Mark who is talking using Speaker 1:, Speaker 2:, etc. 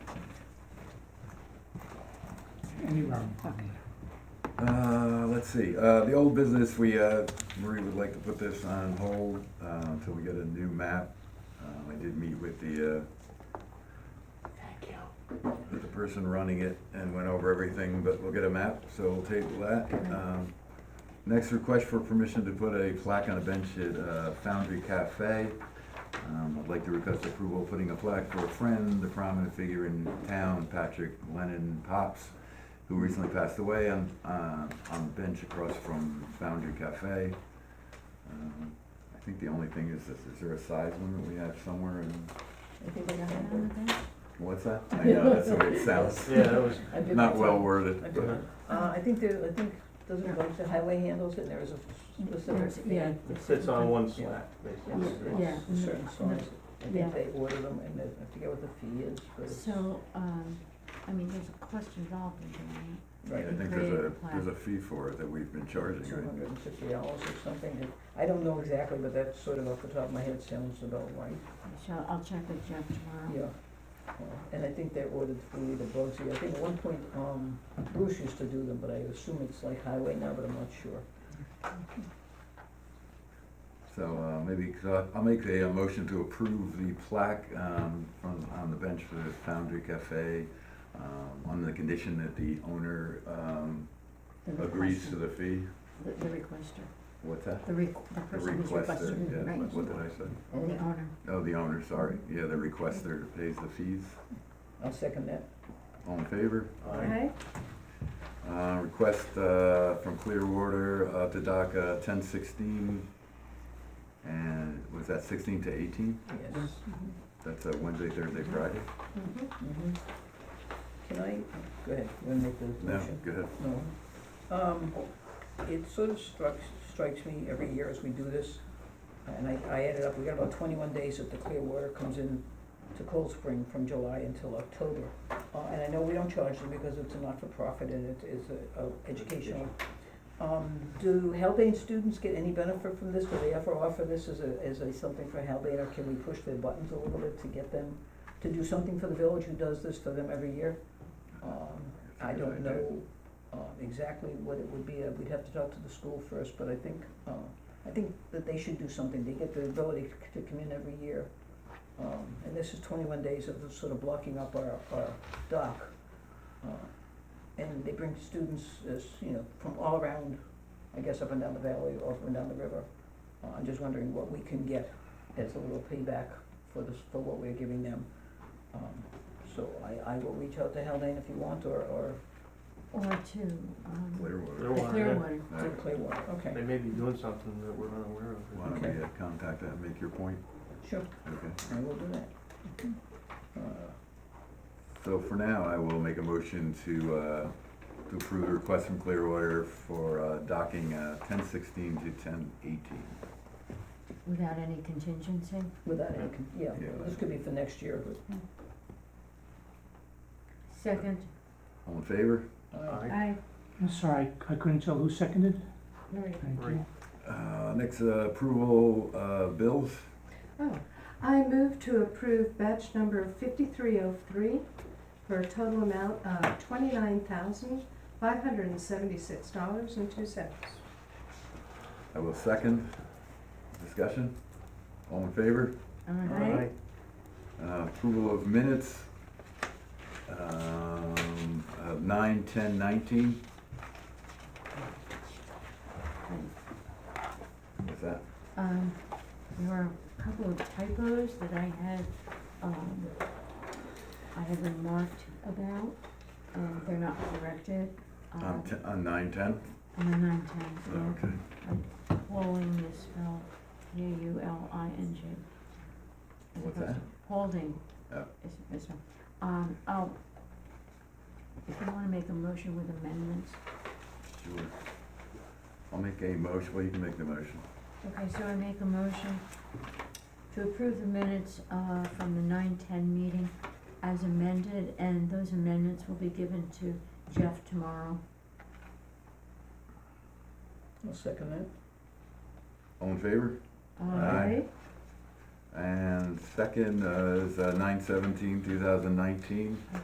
Speaker 1: any round.
Speaker 2: Okay.
Speaker 3: Uh, let's see, uh, the old business, we, uh, Marie would like to put this on hold, uh, until we get a new map. Um, I did meet with the, uh,
Speaker 1: Thank you.
Speaker 3: with the person running it and went over everything, but we'll get a map, so we'll table that. Um, Next request for permission to put a plaque on a bench at uh, Foundry Cafe. Um, I'd like to request approval of putting a plaque for a friend, a prominent figure in town, Patrick Lennon Pops, who recently passed away on, uh, on the bench across from Foundry Cafe. Um, I think the only thing is, is there a size limit we have somewhere in,
Speaker 2: I think I got that on the
Speaker 3: what's that? I know, that's the way it sounds.
Speaker 4: Yeah, that was,
Speaker 2: I did
Speaker 3: Not
Speaker 2: my
Speaker 3: well
Speaker 2: time.
Speaker 3: worded,
Speaker 2: I did
Speaker 3: but.
Speaker 2: my- Uh, I think there, I think, doesn't it go to highway handles and there is a specific
Speaker 5: There's-
Speaker 2: fee?
Speaker 5: Yeah.
Speaker 4: it sits on one slack,
Speaker 5: Yeah,
Speaker 4: basically.
Speaker 5: yeah.
Speaker 2: For Certain songs, I
Speaker 5: Yeah.
Speaker 2: think they order them and they I forget what the fee is, but it's.
Speaker 5: So, um, I mean, there's a cost involved in doing
Speaker 2: Right,
Speaker 3: I think
Speaker 5: Create
Speaker 3: there's
Speaker 5: the
Speaker 3: a,
Speaker 5: plan.
Speaker 3: there's a fee for it that we've been charging,
Speaker 2: two
Speaker 3: right?
Speaker 2: hundred and fifty dollars or something, and I don't know exactly, but that's sort of off the top of my head sounds about right,
Speaker 5: it, so I'll check with Jeff tomorrow.
Speaker 2: yeah. Uh, And I think they ordered through the Bugsy, I think at one point, um, Bruce used to do them, but I assume it's like highway now, but I'm not sure.
Speaker 3: So, uh, maybe, so I- I'll make a, uh motion to approve the plaque, um, from, on the bench for the Foundry Cafe, um, on the condition that the owner, um,
Speaker 5: The
Speaker 3: agrees to
Speaker 5: requester-
Speaker 3: the fee.
Speaker 5: The, the requester,
Speaker 3: What's that?
Speaker 5: the requ- the
Speaker 3: The
Speaker 5: person who's
Speaker 3: requester,
Speaker 5: requesting,
Speaker 3: yeah,
Speaker 5: right?
Speaker 3: what did I say?
Speaker 5: The owner.
Speaker 3: Oh, the owner, sorry, yeah, the requester pays the fees,
Speaker 2: I'll second that.
Speaker 3: all in favor?
Speaker 4: Aye.
Speaker 3: Uh, request, uh, from Clearwater, uh, to dock, uh, ten sixteen, and was that sixteen to eighteen?
Speaker 2: Yes.
Speaker 3: That's uh, Wednesday, Thursday,
Speaker 2: Mm-hmm.
Speaker 3: Friday?
Speaker 5: Mm-hmm.
Speaker 2: Mhm. Can I, go ahead, you wanna make the
Speaker 3: No,
Speaker 2: motion?
Speaker 3: go ahead.
Speaker 2: No. Um, it sort of strikes, strikes me every year as we do this, and I, I added up, we got about twenty-one days that the clear water comes in to Cold Spring from July until October. Uh, and I know we don't charge them because it's a not-for-profit and it is a, a educational. Um, do Haldane students get any benefit from this? Do they ever offer this as a, as a something for Haldane, or can we push their buttons a little bit to get them to do something for the village who does this for them every year? Um, I don't know uh, exactly what it would be, Uh, we'd have to talk to the school first, but I think, uh, I think that they should do something, they get the ability c- to come in every year. Um, And this is twenty-one days of sort of blocking up our, our dock. Uh, And they bring students, as, you know, from all around, I guess up and down the valley or up and down the river. Uh, I'm just wondering what we can get as a little payback for this, for what we're giving them. Um, So I, I will reach out to Haldane if you want, or, or
Speaker 5: Or to, um,
Speaker 3: Clearwater.
Speaker 5: the
Speaker 4: Clearwater.
Speaker 5: Clearwater.
Speaker 3: All
Speaker 2: To
Speaker 3: right.
Speaker 2: Clearwater,
Speaker 4: They
Speaker 2: okay,
Speaker 4: may be doing something that we're unaware
Speaker 3: Why don't
Speaker 4: of.
Speaker 3: we uh, contact that, make your point?
Speaker 2: sure,
Speaker 3: Okay.
Speaker 2: I will do that. Uh,
Speaker 3: So for now, I will make a motion to, uh, to approve the request from Clearwater for uh, docking ten sixteen to ten eighteen.
Speaker 5: without any contingency.
Speaker 2: Without any, con- yeah,
Speaker 3: Yeah.
Speaker 2: this could be for next year, but,
Speaker 5: Second,
Speaker 3: All in favor?
Speaker 2: uh,
Speaker 4: Aye.
Speaker 5: I,
Speaker 1: I'm sorry, I couldn't tell who seconded.
Speaker 5: Maria.
Speaker 1: Thank you.
Speaker 4: Marie.
Speaker 3: Uh, Next, uh, approval uh, bills.
Speaker 6: Oh, I move to approve batch number fifty-three oh three for a total amount of twenty-nine thousand, five hundred and seventy-six dollars and two cents.
Speaker 3: I will second. Discussion? All in favor?
Speaker 5: Um,
Speaker 2: Aye.
Speaker 3: Uh, Approval of minutes. um, of Nine, ten, nineteen. What's that?
Speaker 5: Um, there were a couple of typos that I had, um, I had remarked about, and they're not corrected. uh,
Speaker 3: On te- on nine, ten?
Speaker 5: On the nine ten,
Speaker 3: Okay.
Speaker 5: yeah, Pauling is spelled P A U L I N G. as
Speaker 3: What's
Speaker 5: opposed
Speaker 3: that?
Speaker 5: to Paulding.
Speaker 3: Oh.
Speaker 5: Is, is, um, oh, if you wanna make a motion with amendments,
Speaker 3: Sure. I'll make a motion, well, you can make the motion.
Speaker 5: Okay, so I make a motion to approve the minutes, uh, from the nine ten meeting as amended, and those amendments will be given to Jeff tomorrow.
Speaker 2: I'll second that.
Speaker 3: All in favor?
Speaker 5: Uh,
Speaker 3: Aye. And second uh, is nine uh, seventeen, two thousand nineteen.
Speaker 5: Okay,